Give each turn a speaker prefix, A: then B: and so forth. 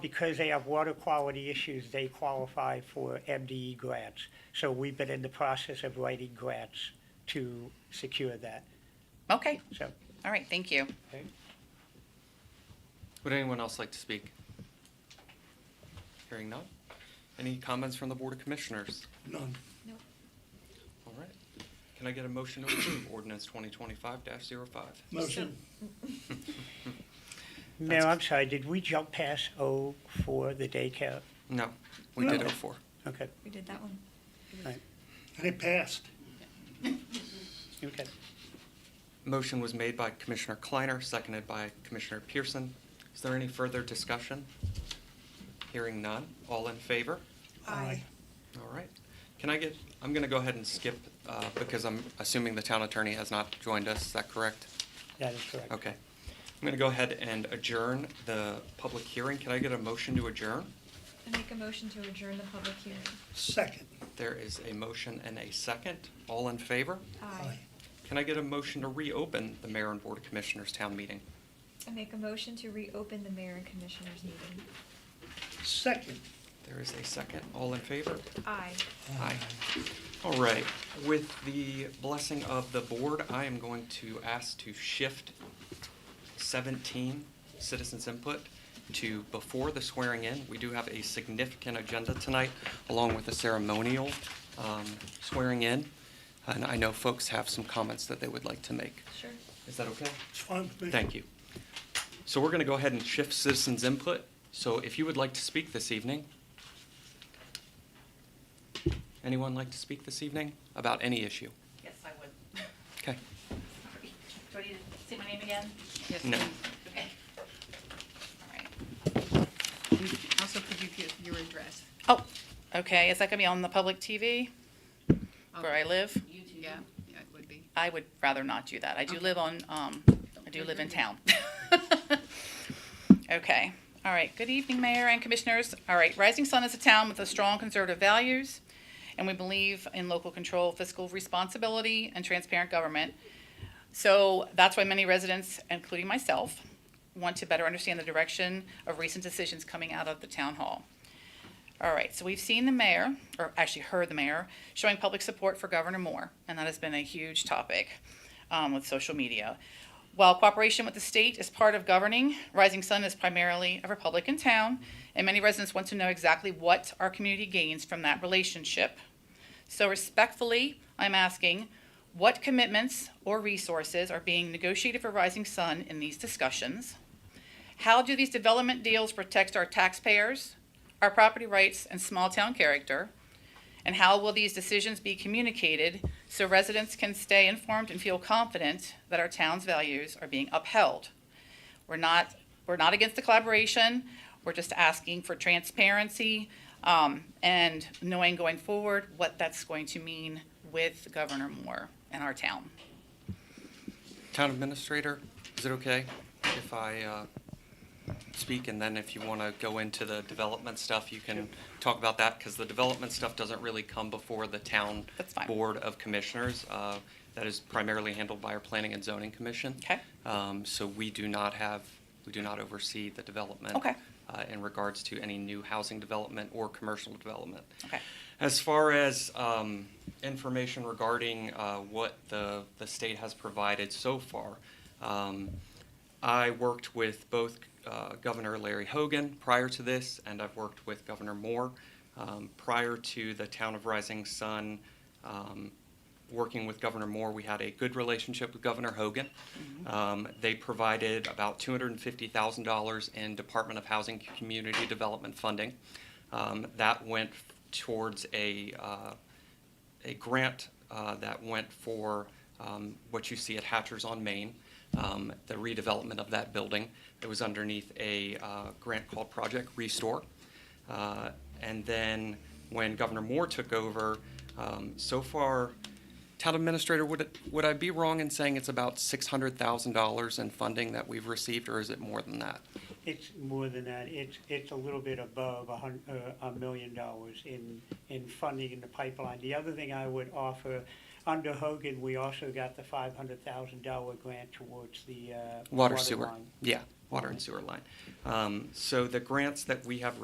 A: because they have water quality issues, they qualify for MDE grants. So we've been in the process of writing grants to secure that,
B: Okay,
A: so.
B: all right, thank you.
C: Would anyone else like to speak? Hearing none. Any comments from the Board of Commissioners?
D: None.
C: All right. Can I get a motion to approve ordinance 2025-05?
D: Motion.
A: Mayor, I'm sorry, did we jump past O for the daycare?
C: No, we did
D: No.
C: 04.
A: Okay,
E: We did that one.
D: And it passed.
A: okay.
C: Motion was made by Commissioner Kleiner, seconded by Commissioner Pearson. Is there any further discussion? Hearing none. All in favor?
D: Aye.
C: All right. Can I get, I'm going to go ahead and skip uh, because I'm assuming the town attorney has not joined us. Is that correct?
A: That is correct.
C: Okay. I'm going to go ahead and adjourn the public hearing. Can I get a motion to adjourn?
E: I make a motion to adjourn the public hearing.
D: Second.
C: There is a motion and a second. All in favor?
E: Aye.
C: Can I get a motion to reopen the Mayor and Board of Commissioners Town Meeting?
E: I make a motion to reopen the mayor and commissioners meeting.
D: Second.
C: There is a second. All in favor?
E: Aye.
C: Aye. All right. With the blessing of the board, I am going to ask to shift 17, citizens input, to before the swearing in. We do have a significant agenda tonight, along with a ceremonial um, swearing in. And I know folks have some comments that they would like to make.
E: Sure.
C: Is that okay?
D: It's fine with me.
C: Thank you. So we're going to go ahead and shift citizens' input. So if you would like to speak this evening, anyone like to speak this evening about any issue?
F: Yes, I would.
C: Okay.
F: Sorry. Do I need to say my name again?
B: Yes,
C: No.
B: please.
F: Okay.
B: All right.
G: Also, could you give your address?
B: Oh, okay, is that gonna be on the public TV where I live?
F: YouTube.
G: Yeah, yeah, it would be.
B: I would rather not do that. I do
G: Okay.
B: live on, um, I do live in town. Okay, all right. Good evening, Mayor and Commissioners. All right, Rising Sun is a town with a strong conservative values, and we believe in local control, fiscal responsibility, and transparent government. So that's why many residents, including myself, want to better understand the direction of recent decisions coming out of the town hall. All right, so we've seen the mayor, or actually heard the mayor, showing public support for Governor Moore, and that has been a huge topic um, with social media. While cooperation with the state is part of governing, Rising Sun is primarily a Republican town, and many residents want to know exactly what our community gains from that relationship. So respectfully, I'm asking, what commitments or resources are being negotiated for Rising Sun in these discussions? How do these development deals protect our taxpayers, our property rights, and small-town character? And how will these decisions be communicated so residents can stay informed and feel confident that our town's values are being upheld? We're not, we're not against the collaboration, we're just asking for transparency, um, and knowing going forward what that's going to mean with Governor Moore and our town.
C: Town Administrator, is it okay if I uh, speak? And then if you want to go into the development stuff, you can talk about that because the development stuff doesn't really come before the Town
B: That's fine.
C: Board of Commissioners. Uh, That is primarily handled by our Planning and Zoning Commission.
B: Okay.
C: Um, So we do not have, we do not oversee the development.
B: Okay.
C: uh, In regards to any new housing development or commercial development.
B: Okay.
C: As far as um, information regarding uh, what the, the state has provided so far, um, I worked with both uh, Governor Larry Hogan prior to this, and I've worked with Governor Moore um, prior to the Town of Rising Sun. Um, working with Governor Moore, we had a good relationship with Governor Hogan. Um, they provided about $250,000 in Department of Housing Community Development funding. Um, that went towards a uh, a grant uh, that went for um, what you see at Hatchers on Main, um, the redevelopment of that building. It was underneath a uh, grant called Project Restore. Uh, and then when Governor Moore took over, um, so far, Town Administrator, would it, would I be wrong in saying it's about six hundred thousand dollars in funding that we've received, or is it more than that?
A: It's more than that. It's, it's a little bit above a hun, uh, a million dollars in, in funding in the pipeline. The other thing I would offer, under Hogan, we also got the five hundred thousand dollar grant towards the, uh,
C: Water sewer.
A: line.
C: Yeah, water and sewer line. Um, so the grants that we have